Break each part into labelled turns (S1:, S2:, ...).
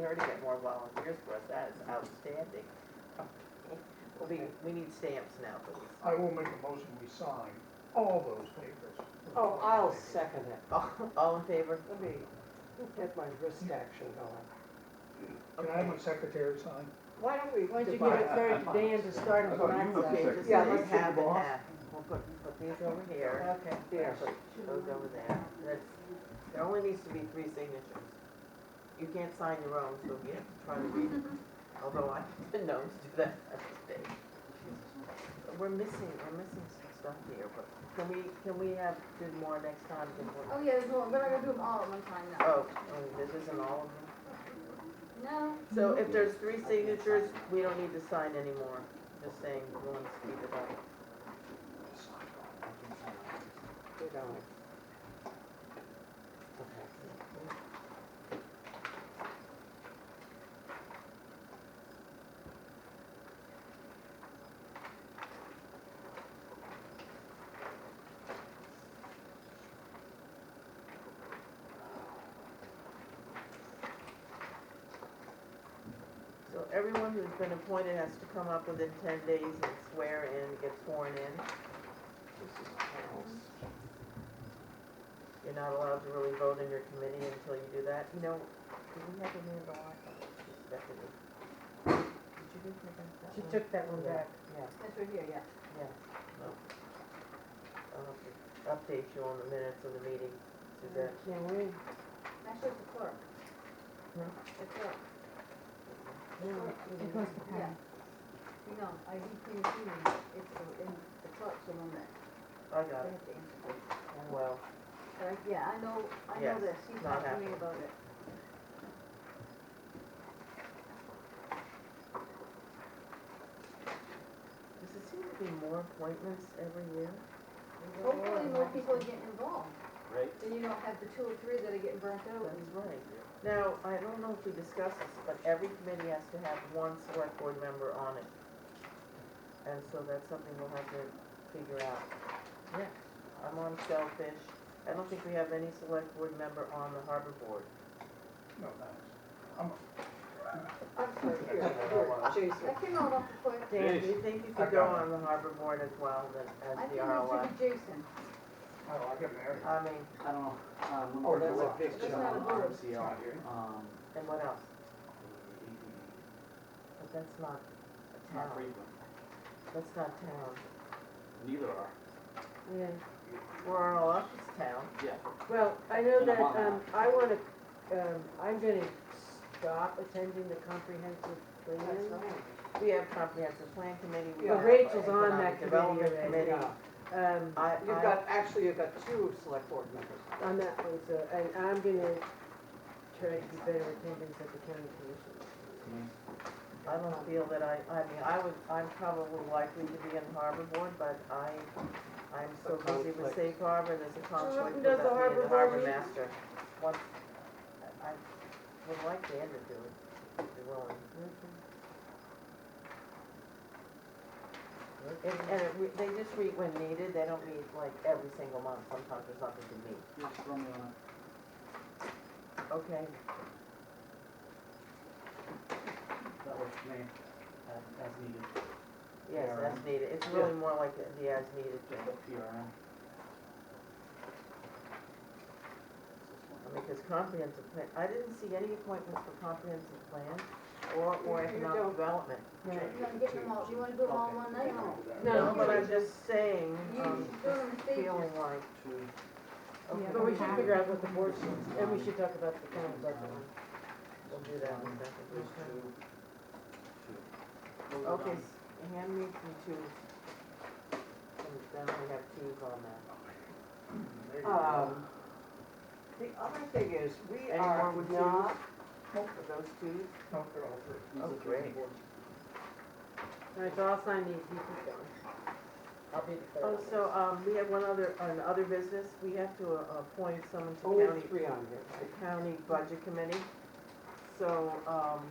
S1: her to get more volunteers for us, that is outstanding. We, we need stamps now,
S2: I
S1: please.
S2: will make a motion, we sign all those papers.
S3: Oh, I'll second it.
S1: All- All in favor?
S3: Let me get my wrist action going.
S2: Can I have my secretary sign?
S3: Why don't we
S4: Why don't you give
S3: divide
S4: it third to
S3: up?
S4: Dan to start
S5: I
S4: him
S5: thought
S4: from
S5: you
S4: that
S5: were
S1: Oh, Okay,
S5: second.
S4: side?
S1: just
S3: Yeah,
S1: leave
S3: let's
S1: half
S3: do
S1: and
S3: both.
S1: half. We'll put, put these over here,
S4: Okay.
S3: There.
S1: put those over there. That's, there only needs to be three signatures. You can't sign your own, so you have to try to read, although I didn't know to do that today. We're missing, we're missing some stuff here, but can we, can we have, do more next time? than what-
S6: Oh yeah, there's one, we're not gonna do them all at one time now.
S1: Oh, and this isn't all of them?
S6: No,
S1: So if there's three signatures, we don't need to sign anymore, just saying, we want to speed it up.
S3: We're going. Okay.
S1: So everyone who's been appointed has to come up within ten days and swear in, get sworn in. You're not allowed to really vote in your committee until you do that. You know, did we have Amanda Locke on this, This Stephanie? Did you give her back that
S4: She
S1: one?
S4: took that one
S1: Yeah.
S4: back.
S6: that's right here, yeah.
S1: Yeah, no. I'll have to update you on the minutes of the meeting, Suzette.
S3: Can we,
S6: Actually, it's the clerk.
S1: Hmm?
S6: The clerk,
S4: It goes to
S6: yeah.
S4: Pam.
S6: You know, I did clean the room, it's the, in, the clerk's the one that,
S1: I
S6: they
S1: got it.
S6: have to answer to.
S1: Well,
S6: But I, yeah, I know, I know
S1: Yes,
S6: this, she
S1: not
S6: talked to me
S1: happening.
S6: about it.
S1: does it seem to be more appointments every year?
S6: Hopefully more people are getting involved,
S7: Right.
S6: then you don't have the two or three that are getting burnt out and
S1: That's right. Now, I don't know if we discussed this, but every committee has to have one select board member on it. And so that's something we'll have to figure out. Yeah. I'm on Shellfish. I don't think we have any select board member on the harbor board.
S2: No, thanks.
S3: I'm sorry, here, here, Jason.
S6: That came out off the clerk.
S1: Dan, do you think you
S2: I
S1: could go
S2: got
S1: on the harbor board as well as,
S6: I
S1: as the
S6: think it
S1: RLF?
S6: should be Jason.
S2: Oh, I got married.
S1: I mean,
S8: I don't know, um,
S1: Oh,
S2: Or
S8: that's a
S2: July.
S8: big
S6: That's not a
S8: job,
S6: vote.
S8: obviously,
S2: It's
S8: um,
S2: not here.
S8: um,
S1: and what else? But that's not a
S8: it's not
S1: town.
S8: frequent,
S1: That's not town.
S8: neither are,
S3: Yeah.
S1: Where RLF is town.
S8: yeah.
S4: Well, I know
S8: And I'm
S4: that,
S8: on
S4: um, I wanna, um, I'm gonna stop attending the comprehensive
S3: That's
S4: plan.
S3: right.
S1: We have comprehensive plan committee. we
S3: Yeah.
S1: have
S4: Rachel's on
S1: economic
S4: that committee
S1: development
S4: already.
S1: committee.
S3: Yeah.
S4: Um,
S1: I,
S3: You've
S1: I,
S3: got, actually, you've got two select board members.
S4: on that one, so, and I'm gonna try to be better attendance at the county commission.
S1: I don't feel that I, I mean, I would, I'm probably likely to be in harbor board, but I, I'm so
S3: A
S1: busy with
S3: conflict.
S1: safe harbor, there's a conflict
S4: who
S1: with
S4: does
S1: us
S4: the
S1: being
S4: harbor
S1: the
S4: board
S1: harbor
S4: meeting?
S1: master. Once, I I would like Dan to do it, if you're willing. And, and it re- they just meet when needed, they don't meet like every single month, sometimes there's nothing to meet.
S8: Just throw me on it.
S1: Okay,
S8: that works for me, as, as needed,
S1: yes,
S8: Yeah.
S1: as needed, it's really more like the the as needed thing.
S8: just a PRN.
S1: I mean, because comprehensive plan, I didn't see any appointments for comprehensive plan or, or
S3: You- you
S1: economic
S3: don't.
S1: development.
S6: You wanna get them all, you wanna do them all in one night?
S1: No,
S4: No,
S1: but I'm just saying,
S6: You
S1: um,
S6: do
S1: just
S6: them in
S1: feeling
S6: stages.
S1: like,
S8: Two,
S1: okay,
S4: But we should figure out what the board should, and we should talk about the county budget.
S1: we'll do that in a second.
S8: there's two, two. Those are
S1: Okay,
S8: done.
S1: s- hand me the two. And then we have twos on that.
S2: There you go.
S3: Um, the other thing is, we
S1: Any more
S3: are
S1: with twos?
S3: not,
S1: Are those twos?
S2: No, they're all three.
S8: These
S1: Oh,
S8: are three
S1: great.
S8: boards.
S4: All right, so I'll sign these, you keep going. I'll be the third.
S1: Oh, so, um, we have one other, on other business, we have to uh, appoint someone to
S3: only
S1: county
S3: three on here.
S1: the county budget committee. So, um,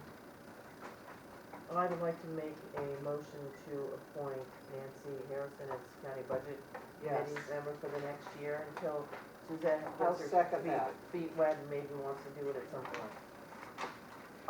S1: I'd like to make a motion to appoint Nancy Harrison as county budget
S3: Yes.
S1: committee member for the next year until Suzette
S3: I'll
S1: gets her
S3: second that.
S1: feet wet and maybe wants to do it at some point.